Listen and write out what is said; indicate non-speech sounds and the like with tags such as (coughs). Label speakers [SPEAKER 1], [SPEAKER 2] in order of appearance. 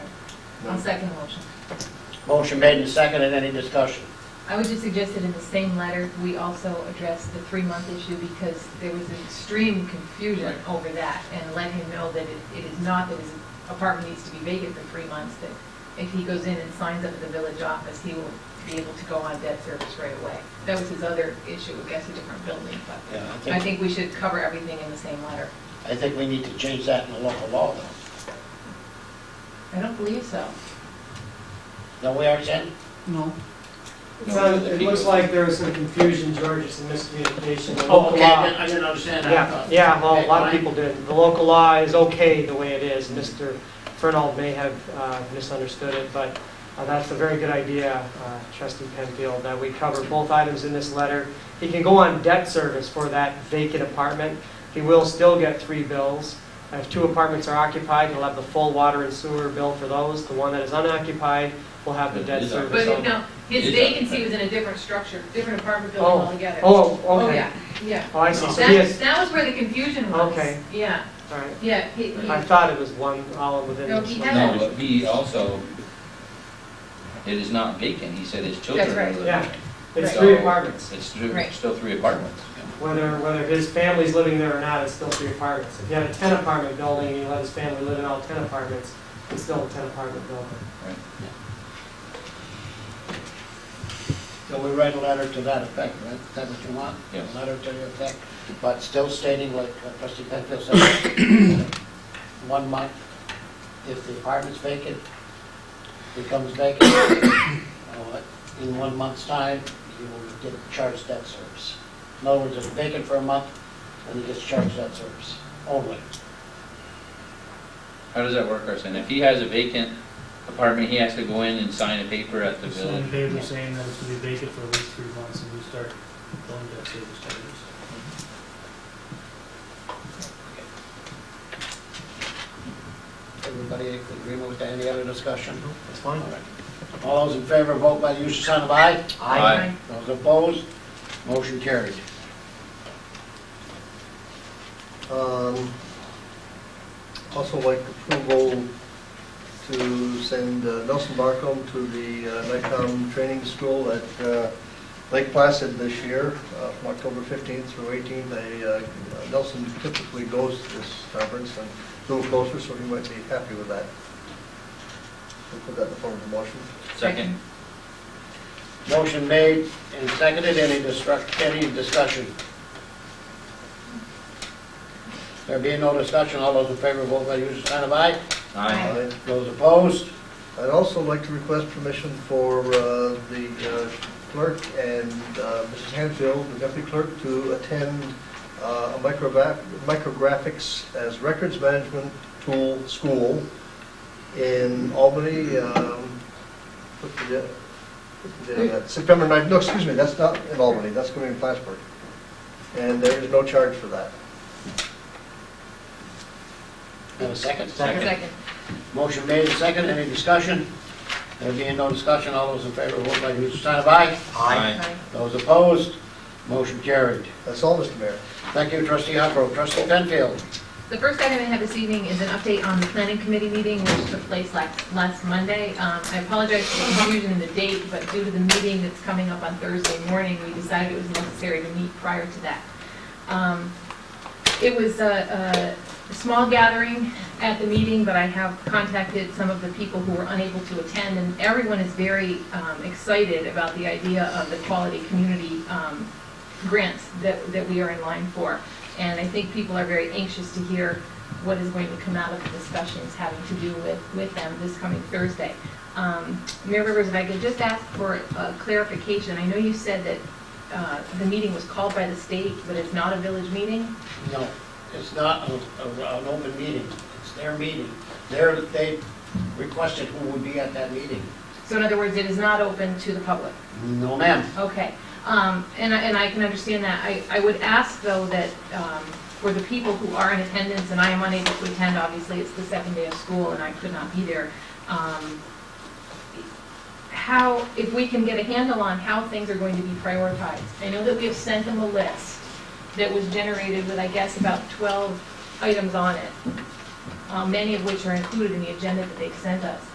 [SPEAKER 1] I'll second the motion.
[SPEAKER 2] Motion made and seconded, any discussion?
[SPEAKER 1] I would just suggest that in the same letter, we also address the three-month issue because there was extreme confusion
[SPEAKER 3] Right.
[SPEAKER 1] over that and let him know that it- it is not that his apartment needs to be vacant for three months, that if he goes in and signs up at the village office, he will be able to go on debt service right away. That was his other issue, I guess, a different building, but
[SPEAKER 2] Yeah,
[SPEAKER 1] I think we should cover everything in the same letter.
[SPEAKER 2] I think we need to change that in the local law, though.
[SPEAKER 1] I don't believe so.
[SPEAKER 2] Don't we, Arsen?
[SPEAKER 4] No.
[SPEAKER 5] It sounds- it looks like there was some confusion, George, it's a miscommunication. The
[SPEAKER 2] Oh,
[SPEAKER 5] local
[SPEAKER 2] okay, I
[SPEAKER 5] law-
[SPEAKER 2] didn't- I didn't understand that.
[SPEAKER 5] Yeah, yeah, well, a lot of people did. The local law is okay the way it is. Mr. Fernald may have uh, misunderstood it, but uh, that's a very good idea, uh, trustee Penfield, that we cover both items in this letter. He can go on debt service for that vacant apartment. He will still get three bills. If two apartments are occupied, he'll have the full water and sewer bill for those. The one that is unoccupied will have the debt
[SPEAKER 3] Is
[SPEAKER 5] service.
[SPEAKER 3] occupied.
[SPEAKER 1] But
[SPEAKER 5] only.
[SPEAKER 1] no, his
[SPEAKER 3] It is
[SPEAKER 1] vacancy was in a different structure, different apartment building
[SPEAKER 5] Oh.
[SPEAKER 1] altogether.
[SPEAKER 5] Oh,
[SPEAKER 1] Oh,
[SPEAKER 5] okay.
[SPEAKER 1] yeah, yeah.
[SPEAKER 5] Oh, I see. So he
[SPEAKER 1] That,
[SPEAKER 5] is,
[SPEAKER 1] that was where the confusion was.
[SPEAKER 5] Okay.
[SPEAKER 1] Yeah,
[SPEAKER 5] all right.
[SPEAKER 1] yeah. he- he-
[SPEAKER 5] I thought it was one, all within
[SPEAKER 1] No,
[SPEAKER 5] this
[SPEAKER 1] he
[SPEAKER 5] one.
[SPEAKER 1] had-
[SPEAKER 3] No, but B also, it is not vacant, he said his children
[SPEAKER 1] That's
[SPEAKER 3] are
[SPEAKER 1] right.
[SPEAKER 3] living
[SPEAKER 5] Yeah.
[SPEAKER 3] there.
[SPEAKER 5] It's
[SPEAKER 3] Right.
[SPEAKER 5] three apartments.
[SPEAKER 3] It's three,
[SPEAKER 1] Right.
[SPEAKER 3] still three apartments.
[SPEAKER 5] Whether, whether his family's living there or not, it's still three apartments. If you had a ten apartment building and you let his family live in all ten apartments, it's still a ten apartment building.
[SPEAKER 3] Right.
[SPEAKER 2] So we write a letter to that effect, right? Is that what you want?
[SPEAKER 3] Yes.
[SPEAKER 2] A letter to the effect, but still stating like trustee Penfield said, (coughs) one month, if the apartment's vacant, becomes vacant, (coughs) uh, in one month's time, you will get charged debt service. In other words, if it's vacant for a month, then you get charged debt service only.
[SPEAKER 3] How does that work, Arson? If he has a vacant apartment, he has to go in and sign a paper at the
[SPEAKER 6] Sign a
[SPEAKER 3] village.
[SPEAKER 6] paper saying that it's gonna be vacant for at least three months and we start going debt service charges.
[SPEAKER 2] Everybody agree with that? Any other discussion?
[SPEAKER 4] That's fine.
[SPEAKER 2] All those in favor, vote by the usual sign of aye.
[SPEAKER 3] Aye.
[SPEAKER 2] Those opposed, motion carried.
[SPEAKER 4] Um, Also like approval to send uh, Nelson Barcom to the uh, NICOM training school at uh, Lake Placid this year, uh, from October 15th through 18th. They, uh, Nelson typically goes to this conference and a little closer, so he might be happy with that. We'll put that in the form of a motion.
[SPEAKER 3] Second,
[SPEAKER 2] Motion made and seconded, any destruct, any discussion? There being no discussion, all those in favor, vote by the usual sign of aye.
[SPEAKER 3] aye.
[SPEAKER 4] Aye.
[SPEAKER 2] Those opposed,
[SPEAKER 4] I'd also like to request permission for uh, the uh, clerk and uh, Mrs. Hanfield, the deputy clerk, to attend uh, a microgra- micrographics as records management tool school in Albany, um, what's the day- what's the day of that? September 9th, no, excuse me, that's not in Albany, that's going to be in Plattsburgh. And there is no charge for that.
[SPEAKER 2] have a second.
[SPEAKER 3] Second.
[SPEAKER 1] Second.
[SPEAKER 2] Motion made and seconded, any discussion? There being no discussion, all those in favor, vote by the usual sign of aye.
[SPEAKER 1] Aye.
[SPEAKER 2] Those opposed, motion carried.
[SPEAKER 4] That's all, Mr. Mayor.
[SPEAKER 2] Thank you, trustee Huckrow. Trustee Penfield,
[SPEAKER 1] The first item I have this evening is an update on the planning committee meeting, which took place last, last Monday. Um, I apologize for the confusion in the date, but due to the meeting that's coming up on Thursday morning, we decided it was necessary to meet prior to that. Um, It was a, a small gathering at the meeting, but I have contacted some of the people who were unable to attend, and everyone is very, um, excited about the idea of the quality community, um, grants that, that we are in line for. And I think people are very anxious to hear what is going to come out of the discussions having to do with, with them this coming Thursday. Um, Mayor Rivers, if I could just ask for uh, clarification, I know you said that uh, the meeting was called by the state, but it's not a village meeting?
[SPEAKER 2] no, it's not a- a- an open meeting. It's their meeting. They're, they requested who would be at that meeting.
[SPEAKER 1] So in other words, it is not open to the public?
[SPEAKER 2] No, ma'am.
[SPEAKER 1] Okay, um, and I, and I can understand that. I, I would ask though that, um, for the people who are in attendance, and I am unable to attend, obviously, it's the second day of school and I could not be there. um, How, if we can get a handle on how things are going to be prioritized. I know that we have sent them a list that was generated with, I guess, about uh, twelve items on it, um, many of which are included in the agenda that they've sent us.